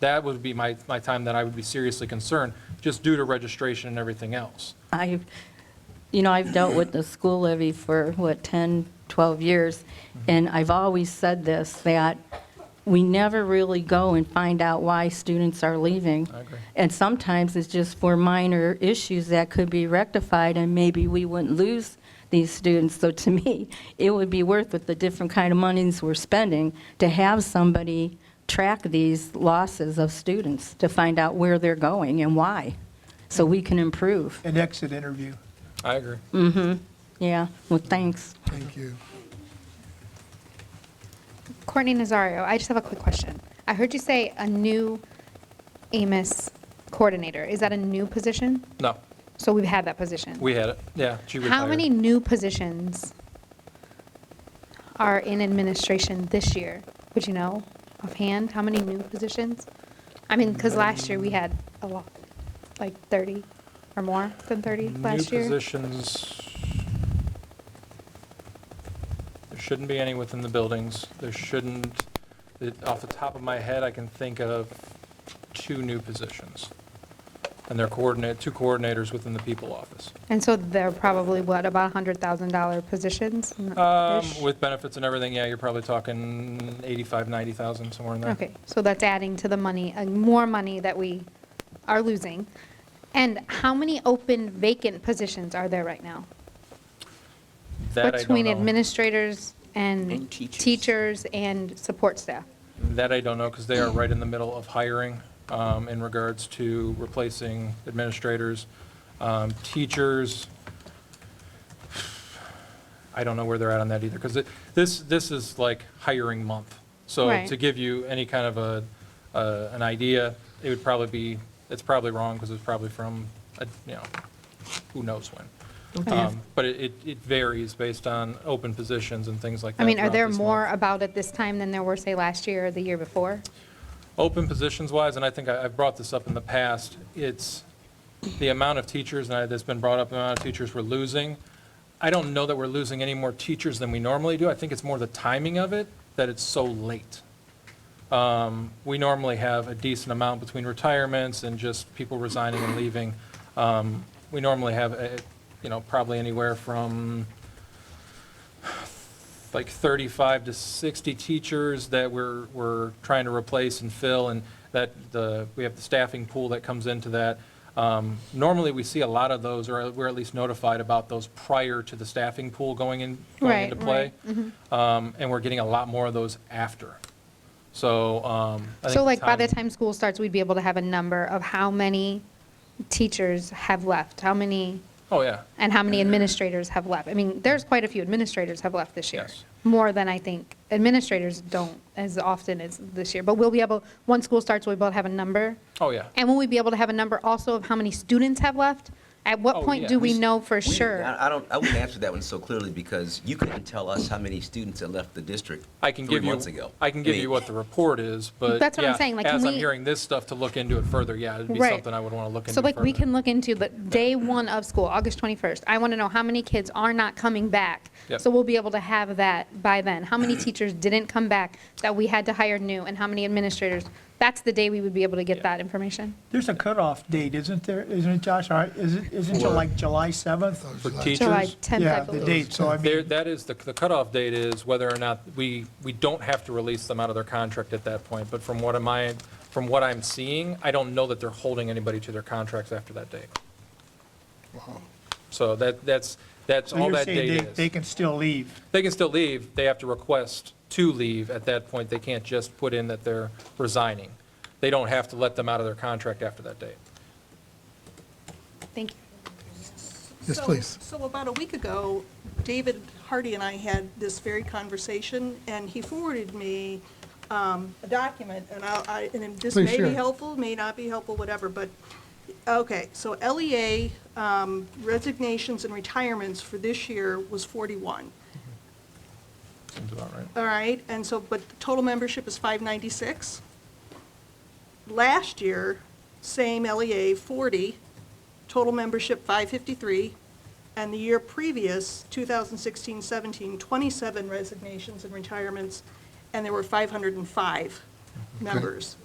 that would be my, my time that I would be seriously concerned, just due to registration and everything else. I've, you know, I've dealt with the school levy for, what, 10, 12 years, Mm-hmm. and I've always said this, that we never really go and find out why students are leaving. I agree. And sometimes it's just for minor issues that could be rectified, and maybe we wouldn't lose these students. So to me, it would be worth with the different kind of monies we're spending to have somebody track these losses of students, to find out where they're going and why, so we can improve. An exit interview. I agree. Mm. Yeah, well, thanks. Thank you. Courtney Nazario, I just have a quick question. I heard you say a new Amos coordinator. Is that a new position? No, So we've had that position. we had it, yeah, she retired. How many new positions are in administration this year? Would you know offhand, how many new positions? I mean, because last Mm. year we had a lot, like 30 or more than 30 last New year. positions. There shouldn't be any within the buildings. There shouldn't, it- off the top of my head, I can think of two new positions. And they're coordinate, two coordinators within the people office. And so they're probably, what, about $100,000 positions? Um, Ish? With benefits and everything, yeah, you're probably talking 85, 90,000, somewhere in there. Okay, so that's adding to the money, uh, more money that we are losing. And how many open vacant positions are there right now? That I don't Between know. administrators and And teachers. teachers and support staff? That I don't know, because they are right in the middle of hiring um, in regards to replacing administrators, um, teachers. I don't know where they're at on that either, because this, this is like hiring month. So Right. to give you any kind of a, a- an idea, it would probably be, it's probably wrong, because it's probably from, a- you know, who knows when. Okay. Um, But it, it- it varies based on open positions and things like that. I mean, are throughout there this more month. about it this time than there were, say, last year or the year before? Open positions-wise, and I think I- I've brought this up in the past, it's the amount of teachers, and I- that's been brought up, the amount of teachers we're losing. I don't know that we're losing any more teachers than we normally do. I think it's more the timing of it, that it's so late. Um, We normally have a decent amount between retirements and just people resigning and leaving. Um, We normally have, eh, you know, probably anywhere from like 35 to 60 teachers that we're, we're trying to replace and fill, and that the, we have the staffing pool that comes into that. Um, Normally, we see a lot of those, or we're at least notified about those prior to the staffing pool going in, going Right, Mm-hmm. into play. Um, And we're getting a lot more of those after. So, um, I think. So like, by the time school starts, we'd be able to have a number of how many teachers have left, how many Oh, yeah. and how many administrators have left. I mean, there's quite a few administrators have left this year. Yes. More than I think administrators don't as often as this year. But we'll be able, once school starts, we'll be able to have a number. Oh, yeah. And will we be able to have a number also of how many students have left? At what Oh, point yeah. do we We- know for We- sure? I I don't, I wouldn't answer that one so clearly because you couldn't tell us how many students had left the district I can three give you, months ago. I can give you mean, what the report is, but. That's what I'm yeah, saying, like, As can I'm we- hearing this stuff, to look into it further, yeah, it'd be Right. something I would want to look into So like, we further. can look into the day one of school, August 21st. I want to know how many kids are not coming back. Yep. So we'll be able to have that by then. How many teachers didn't come back that we had to hire new and how many administrators? That's the day we would be able to Yeah. get that information. There's a cutoff date, isn't there, isn't it, Josh? All right, isn't, isn't it For- like July 7th? For July teachers, 10th, I Yeah, the believe. date, so I There, mean, that is, the the cutoff date is whether or not, we, we don't have to release them out of their contract at that point, but from what am I, from what I'm seeing, I don't know that they're holding anybody to their contracts after that date. So that, that's, that's so all you're that saying date they, they is. can still leave. They can still leave, they have to request to leave at that point, they can't just put in that they're resigning. They don't have to let them out of their contract after that date. Thank you. Yes, please. So about a week ago, David Hardy and I had this very conversation, and he forwarded me um, a document, and I- I, and this may be helpful, may not be helpful, whatever, but, okay, so LEA um, resignations and retirements for this year was 41, Seems about right. all right? And so, but the total membership is 596. Last year, same LEA, 40, total membership 553, and the year previous, 2016-17, 27 resignations and retirements, and there were 505 members.